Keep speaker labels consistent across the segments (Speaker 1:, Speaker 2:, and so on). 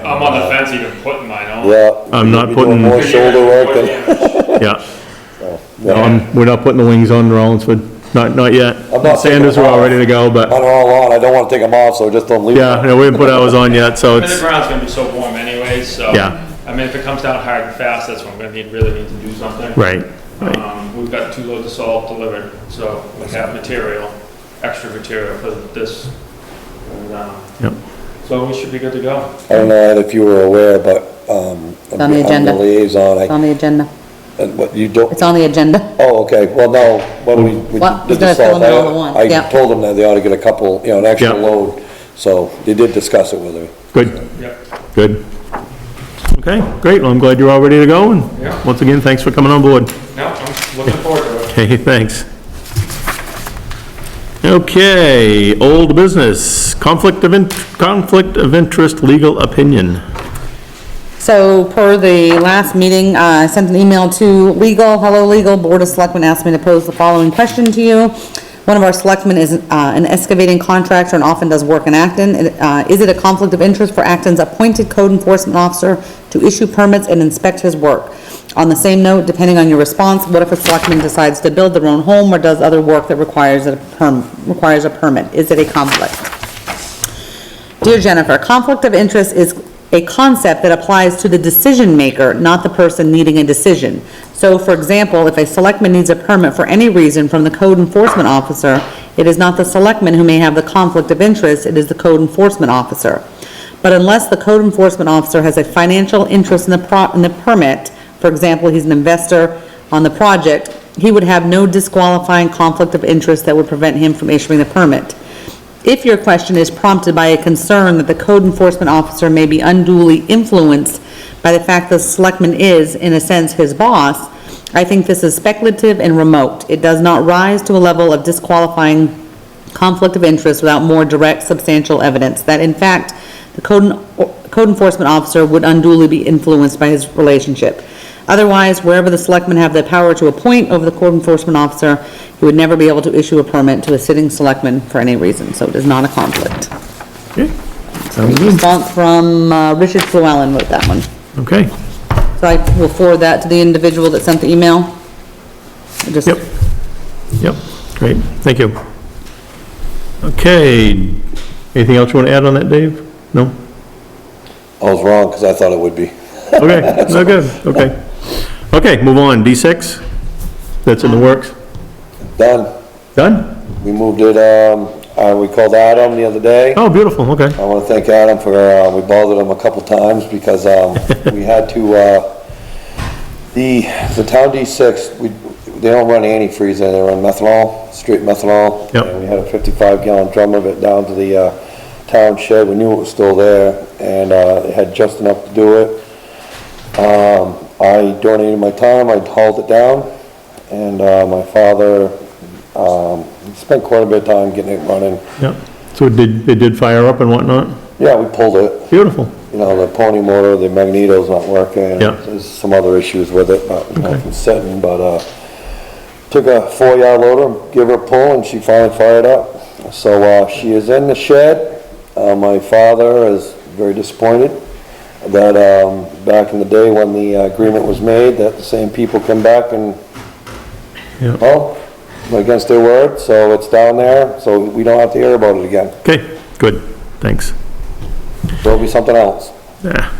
Speaker 1: I'm on the fence even putting mine on.
Speaker 2: Yeah.
Speaker 3: I'm not
Speaker 2: you'll be doing
Speaker 3: putting-
Speaker 2: More shoulder work than,
Speaker 3: yeah.
Speaker 2: yeah.
Speaker 3: Um, we're not putting the wings on Rollinsford, not, not
Speaker 2: I'm
Speaker 3: yet.
Speaker 2: not
Speaker 3: Sanders are all ready to go,
Speaker 2: On
Speaker 3: but,
Speaker 2: and all on, I don't wanna take them off, so just don't leave
Speaker 3: yeah,
Speaker 2: them.
Speaker 3: no, we haven't put ours on yet, so
Speaker 1: And the
Speaker 3: it's,
Speaker 1: ground's gonna be so warm anyways, so.
Speaker 3: Yeah.
Speaker 1: I mean, if it comes down hard and fast, that's when we're gonna need, really need to do something.
Speaker 3: right, right,
Speaker 1: Um, we've got two loads of salt delivered, so we have material, extra material for this. And, um,
Speaker 3: Yep.
Speaker 1: So we should be good to go.
Speaker 2: I don't know Ed, if you were aware, but, um.
Speaker 4: on the
Speaker 2: I'm
Speaker 4: agenda.
Speaker 2: Liaison,
Speaker 4: It's
Speaker 2: I,
Speaker 4: on the agenda.
Speaker 2: and what, you don't,
Speaker 4: It's on the agenda.
Speaker 2: oh, okay, well, no, when we, we
Speaker 4: Well,
Speaker 2: did
Speaker 4: he's gonna
Speaker 2: the
Speaker 4: fill
Speaker 2: salt,
Speaker 4: them all at once,
Speaker 2: I, I
Speaker 4: yeah.
Speaker 2: told them that they ought to get a couple, you know, an extra
Speaker 3: Yeah.
Speaker 2: load, so they did discuss it with me.
Speaker 3: good,
Speaker 1: Yep.
Speaker 3: good. Okay, great, well, I'm glad you're all ready to go,
Speaker 1: Yeah.
Speaker 3: and once again, thanks for coming on board.
Speaker 1: No, I'm looking forward to it.
Speaker 3: Okay, thanks. Okay, old business, conflict of, in- conflict of interest legal opinion.
Speaker 4: So per the last meeting, uh, I sent an email to legal, hello legal, Board of Selectmen asked me to pose the following question to you. One of our selectmen is uh, an excavating contractor and often does work in Acton. And, uh, Is it a conflict of interest for Acton's appointed code enforcement officer to issue permits and inspect his work? On the same note, depending on your response, what if a selectman decides to build their own home or does other work that requires a perm, requires a permit? Is it a conflict? Dear Jennifer, conflict of interest is a concept that applies to the decision maker, not the person needing a decision. So for example, if a selectman needs a permit for any reason from the code enforcement officer, it is not the selectman who may have the conflict of interest, it is the code enforcement officer. But unless the code enforcement officer has a financial interest in the pro, in the permit, for example, he's an investor on the project, he would have no disqualifying conflict of interest that would prevent him from issuing the permit. If your question is prompted by a concern that the code enforcement officer may be unduly influenced by the fact the selectman is, in a sense, his boss, I think this is speculative and remote. It does not rise to a level of disqualifying conflict of interest without more direct substantial evidence that in fact, the code en- code enforcement officer would unduly be influenced by his relationship. Otherwise, wherever the selectmen have the power to appoint over the code enforcement officer, he would never be able to issue a permit to a sitting selectman for any reason, so it is not a conflict.
Speaker 3: Okay, sounds good,
Speaker 4: Response from uh, Richard Flewellen wrote that one.
Speaker 3: okay,
Speaker 4: So I will forward that to the individual that sent the email. Just-
Speaker 3: yep, yep, great, thank you. Okay, anything else you want to add on that, Dave? No?
Speaker 2: I was wrong, cause I thought it would be.
Speaker 3: Okay, no good, okay. Okay, move on, D6, that's in the works,
Speaker 2: Done,
Speaker 3: done?
Speaker 2: we moved it, um, uh, we called Adam the other day.
Speaker 3: Oh, beautiful, okay,
Speaker 2: I want to thank Adam for, uh, we bothered him a couple times because, um, we had to, uh, the, the town D6, we, they don't run antifreeze there, they run methanol, straight methanol.
Speaker 3: Yep.
Speaker 2: And we had a fifty-five gallon drum of it down to the, uh, town shed, we knew it was still there, and, uh, it had just enough to do it. Um, I donated my time, I hauled it down, and, uh, my father, um, spent quite a bit of time getting it running.
Speaker 3: yep. So it did, it did fire up and whatnot?
Speaker 2: Yeah, we pulled it,
Speaker 3: Beautiful,
Speaker 2: you know, the pony motor, the magneto's not working.
Speaker 3: Yeah.
Speaker 2: There's some other issues with it, not,
Speaker 3: Okay.
Speaker 2: nothing sitting, but, uh, took a four-yard loader, give her a pull, and she finally fired up. So, uh, she is in the shed. Uh, my father is very disappointed that, um, back in the day when the uh, agreement was made, that the same people come back and
Speaker 3: Yeah.
Speaker 2: well, against their word, so it's down there, so we don't have to hear about it again.
Speaker 3: okay, good, thanks.
Speaker 2: There'll be something else.
Speaker 3: Yeah.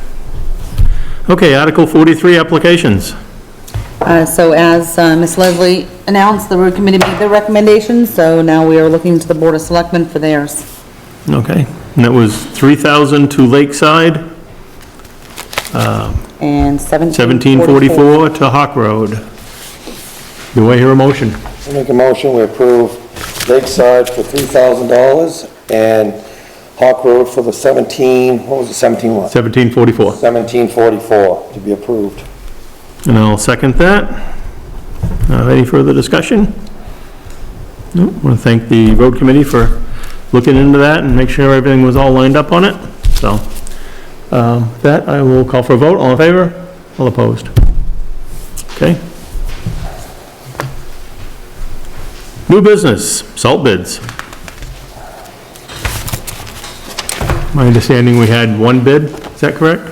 Speaker 3: Okay, Article 43, applications.
Speaker 4: Uh, So as uh, Ms. Leslie announced, the road committee made their recommendations, so now we are looking to the Board of Selectmen for theirs.
Speaker 3: Okay, and that was 3,000 to Lakeside,
Speaker 4: And 1744.
Speaker 3: 1744 to Hawk Road. Do I hear a motion?
Speaker 2: I Make a motion, we approve Lakeside for three thousand dollars and Hawk Road for the seventeen, what was it, seventeen what?
Speaker 3: 1744.
Speaker 2: Seventeen forty-four to be approved.
Speaker 3: And I'll second that. Uh, Any further discussion? No, I want to thank the road committee for looking into that and make sure everything was all lined up on it, so. um, with That, I will call for a vote, all in favor, all opposed? Okay. New business, salt bids. My understanding, we had one bid, Is that correct?